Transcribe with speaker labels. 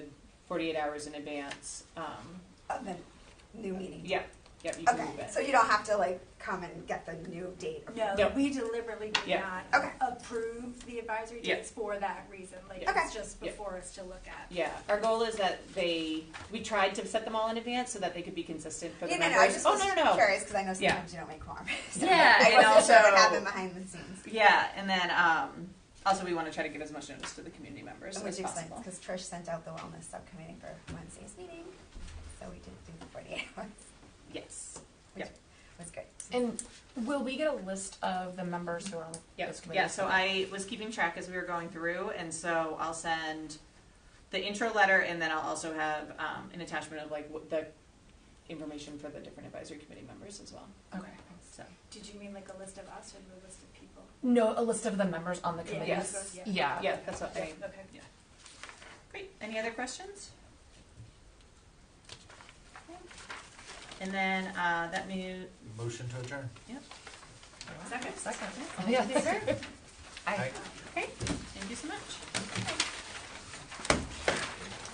Speaker 1: 48 hours in advance. Um,
Speaker 2: of the new meeting.
Speaker 1: yep, yep, you can
Speaker 2: Okay,
Speaker 1: move it.
Speaker 2: so you don't have to like come and get the new date.
Speaker 1: No.
Speaker 3: No, we deliberately did
Speaker 1: Yeah.
Speaker 3: not
Speaker 2: Okay.
Speaker 3: approve the advisory
Speaker 1: Yeah.
Speaker 3: dates for that reason. Like,
Speaker 2: Okay.
Speaker 3: it's just
Speaker 1: Yeah.
Speaker 3: before us to look at.
Speaker 1: yeah, our goal is that they, we tried to set them all in advance so that they could be consistent for the
Speaker 2: Yeah, no,
Speaker 1: members.
Speaker 2: no, I just
Speaker 1: oh,
Speaker 2: was
Speaker 1: no, no, no.
Speaker 2: curious because I know
Speaker 1: Yeah.
Speaker 2: sometimes you don't make quorum. So
Speaker 1: Yeah,
Speaker 2: I
Speaker 1: and
Speaker 2: wasn't sure
Speaker 1: also-
Speaker 2: what happened behind the scenes.
Speaker 1: Yeah, and then um, also we want to try to give as much notice to the community members
Speaker 2: Which
Speaker 1: as
Speaker 2: explains,
Speaker 1: possible.
Speaker 2: because Trish sent out the wellness subcommittee for Wednesday's meeting, so we did do the forty-eight hours,
Speaker 1: Yes.
Speaker 2: which
Speaker 1: Yeah.
Speaker 2: was good.
Speaker 4: And will we get a list of the members who are on
Speaker 1: Yeah,
Speaker 4: this committee?
Speaker 1: yeah, so I was keeping track as we were going through, and so I'll send the intro letter, and then I'll also have um, an attachment of like what the information for the different advisory committee members as well.
Speaker 4: Okay.
Speaker 1: So,
Speaker 3: Did you mean like a list of us or a list of people?
Speaker 4: No, a list of the members on the
Speaker 3: Yeah,
Speaker 4: committees?
Speaker 3: yes. Yeah.
Speaker 4: Yeah.
Speaker 1: yeah, that's what I,
Speaker 3: Yeah, Okay.
Speaker 1: great, any other questions? And then, uh, that means,
Speaker 5: Motion to adjourn.
Speaker 1: Second.
Speaker 4: Second.
Speaker 1: all those in favor?
Speaker 4: I-
Speaker 1: Okay, thank you so much.